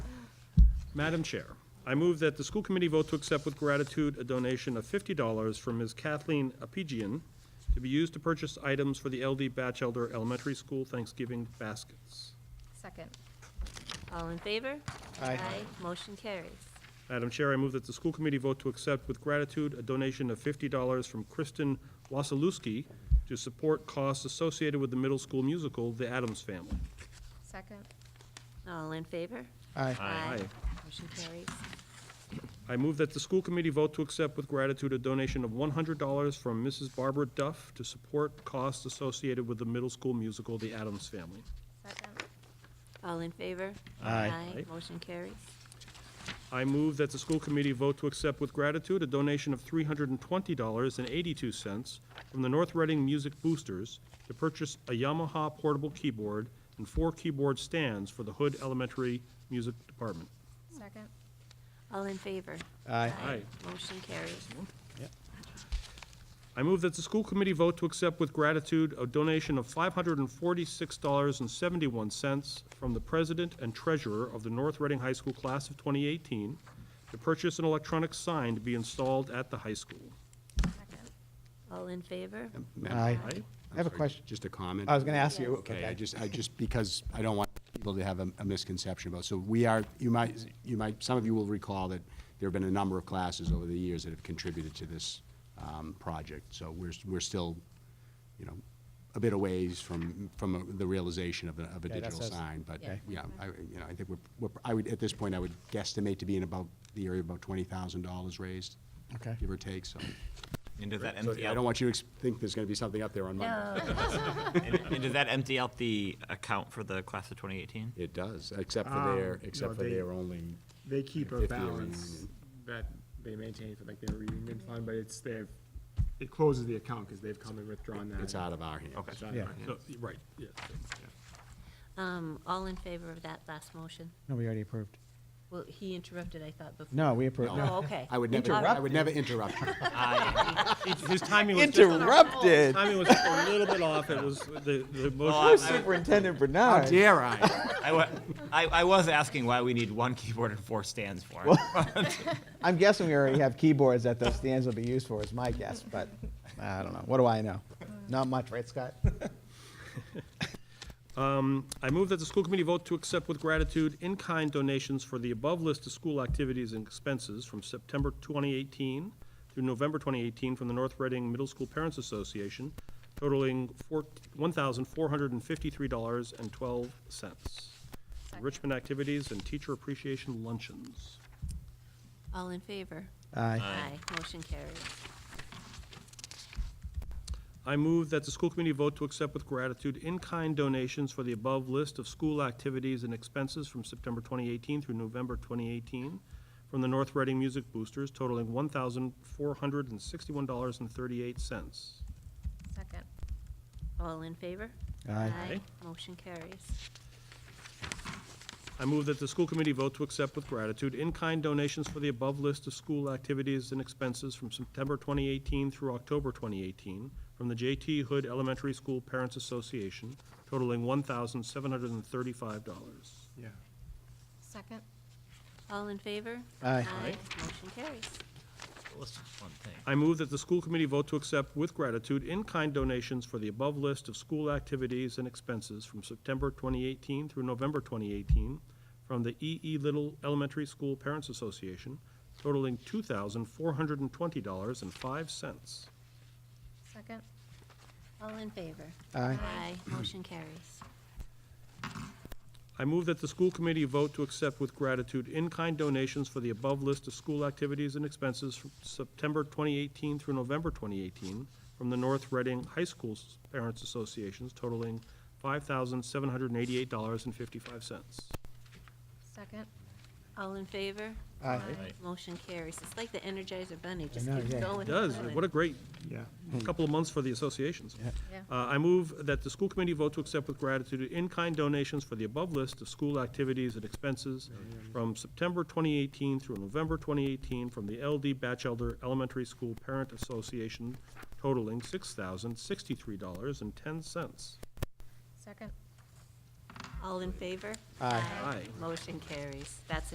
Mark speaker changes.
Speaker 1: Madam Chair, I move that the school committee vote to accept with gratitude a donation of fifty dollars from Ms. Kathleen Apigian to be used to purchase items for the LD Batchelder Elementary School Thanksgiving baskets.
Speaker 2: Second.
Speaker 3: All in favor?
Speaker 4: Aye.
Speaker 3: Motion carries.
Speaker 1: Madam Chair, I move that the school committee vote to accept with gratitude a donation of fifty dollars from Kristen Wasilewski to support costs associated with the middle school musical, The Addams Family.
Speaker 2: Second.
Speaker 3: All in favor?
Speaker 4: Aye.
Speaker 1: Aye.
Speaker 3: Motion carries.
Speaker 1: I move that the school committee vote to accept with gratitude a donation of one hundred dollars from Mrs. Barbara Duff to support costs associated with the middle school musical, The Addams Family.
Speaker 2: Second.
Speaker 3: All in favor?
Speaker 4: Aye.
Speaker 1: Aye.
Speaker 3: Motion carries.
Speaker 1: I move that the school committee vote to accept with gratitude a donation of three hundred and twenty dollars and eighty-two cents from the North Reading Music Boosters to purchase a Yamaha portable keyboard and four keyboard stands for the Hood Elementary Music Department.
Speaker 2: Second.
Speaker 3: All in favor?
Speaker 4: Aye.
Speaker 1: Aye.
Speaker 3: Motion carries.
Speaker 1: I move that the school committee vote to accept with gratitude a donation of $546.71 from the president and treasurer of the North Reading High School Class of 2018 to purchase an electronic sign to be installed at the high school.
Speaker 2: Second.
Speaker 3: All in favor?
Speaker 5: Madam-
Speaker 4: Aye.
Speaker 1: Aye?
Speaker 4: I have a
Speaker 5: sorry,
Speaker 4: question.
Speaker 5: Just a comment.
Speaker 4: I was going to ask you.
Speaker 5: Okay, I just, I just, because I don't want people to have a a misconception about, so we are, you might, you might, some of you will recall that there have been a number of classes over the years that have contributed to this um, project. So we're, s- we're still, you know, a bit a ways from, from the realization of a, of a
Speaker 4: Yeah, that
Speaker 5: digital
Speaker 4: says-
Speaker 5: sign. But,
Speaker 4: Okay.
Speaker 5: yeah, I, you know, I think we're, we're, I would, at this point, I would guesstimate to be in about, the area of about twenty thousand dollars raised.
Speaker 4: Okay.
Speaker 5: Give or take, so.
Speaker 6: And does that
Speaker 5: So
Speaker 6: empty
Speaker 5: I don't
Speaker 6: out,
Speaker 5: want you to ex- think there's gonna be something up there on Monday.
Speaker 6: and and does that empty out the account for the class of 2018?
Speaker 5: It does, except for
Speaker 7: Um,
Speaker 5: their,
Speaker 7: no,
Speaker 5: except for
Speaker 7: they-
Speaker 5: their only,
Speaker 7: They keep a
Speaker 5: 50 or
Speaker 7: balance that they maintain for like their reunion fund, but it's, they've, it closes the account because they've come and withdrawn that.
Speaker 5: it's out of our hands.
Speaker 6: Okay.
Speaker 7: It's out of
Speaker 4: Yeah.
Speaker 7: our
Speaker 1: No,
Speaker 7: hands.
Speaker 1: Right, yeah.
Speaker 3: Um, all in favor of that last motion?
Speaker 4: No, we already approved.
Speaker 3: Well, he interrupted, I thought, before.
Speaker 4: No, we approved.
Speaker 3: Oh, okay.
Speaker 5: I would never, I would never interrupt. you.
Speaker 1: His- His timing was just,
Speaker 4: Interrupted.
Speaker 1: timing was just a little bit off. It was, the, the
Speaker 6: I-
Speaker 1: motion,
Speaker 4: Superintendent
Speaker 5: How
Speaker 4: Bernard.
Speaker 5: dare I?
Speaker 6: I wa- I, I was asking why we need one keyboard and four stands for it.
Speaker 4: I'm guessing we already have keyboards that those stands will be used for, is my guess, but I don't know. What do I know? Not much, right, Scott?
Speaker 1: I move that the school committee vote to accept with gratitude in-kind donations for the above list of school activities and expenses from September 2018 through November 2018 from the North Reading Middle School Parents Association totaling four- $1,453.12. Richmond activities and teacher appreciation luncheons.
Speaker 3: All in favor?
Speaker 4: Aye.
Speaker 3: Motion carries.
Speaker 1: I move that the school committee vote to accept with gratitude in-kind donations for the above list of school activities and expenses from September 2018 through November 2018 from the North Reading Music Boosters totaling $1,461.38.
Speaker 2: Second.
Speaker 3: All in favor?
Speaker 4: Aye.
Speaker 3: Motion carries.
Speaker 1: I move that the school committee vote to accept with gratitude in-kind donations for the above list of school activities and expenses from September 2018 through October 2018 from the J.T. Hood Elementary School Parents Association totaling $1,735.
Speaker 7: Yeah.
Speaker 2: Second.
Speaker 3: All in favor?
Speaker 4: Aye.
Speaker 3: Motion carries.
Speaker 6: Let's just one thing.
Speaker 1: I move that the school committee vote to accept with gratitude in-kind donations for the above list of school activities and expenses from September 2018 through November 2018 from the E. E. Little Elementary School Parents Association totaling $2,420.05.
Speaker 2: Second.
Speaker 3: All in favor?
Speaker 4: Aye.
Speaker 3: Motion carries.
Speaker 1: I move that the school committee vote to accept with gratitude in-kind donations for the above list of school activities and expenses from September 2018 through November 2018 from the North Reading High School Parents Associations totaling $5,788.55.
Speaker 2: Second.
Speaker 3: All in favor?
Speaker 4: Aye.
Speaker 3: Motion carries. It's like the Energizer Bunny, just
Speaker 4: know,
Speaker 3: keeps
Speaker 4: yeah.
Speaker 3: going. and
Speaker 1: Does,
Speaker 3: going.
Speaker 1: what a great
Speaker 7: Yeah.
Speaker 1: couple of months for the associations.
Speaker 2: Yeah.
Speaker 1: Uh, I move that the school committee vote to accept with gratitude in-kind donations for the above list of school activities and expenses from September 2018 through November 2018 from the LD Batchelder Elementary School Parent Association totaling $6,063.10.
Speaker 2: Second.
Speaker 3: All in favor?
Speaker 4: Aye.
Speaker 1: Aye.
Speaker 3: Motion carries. That's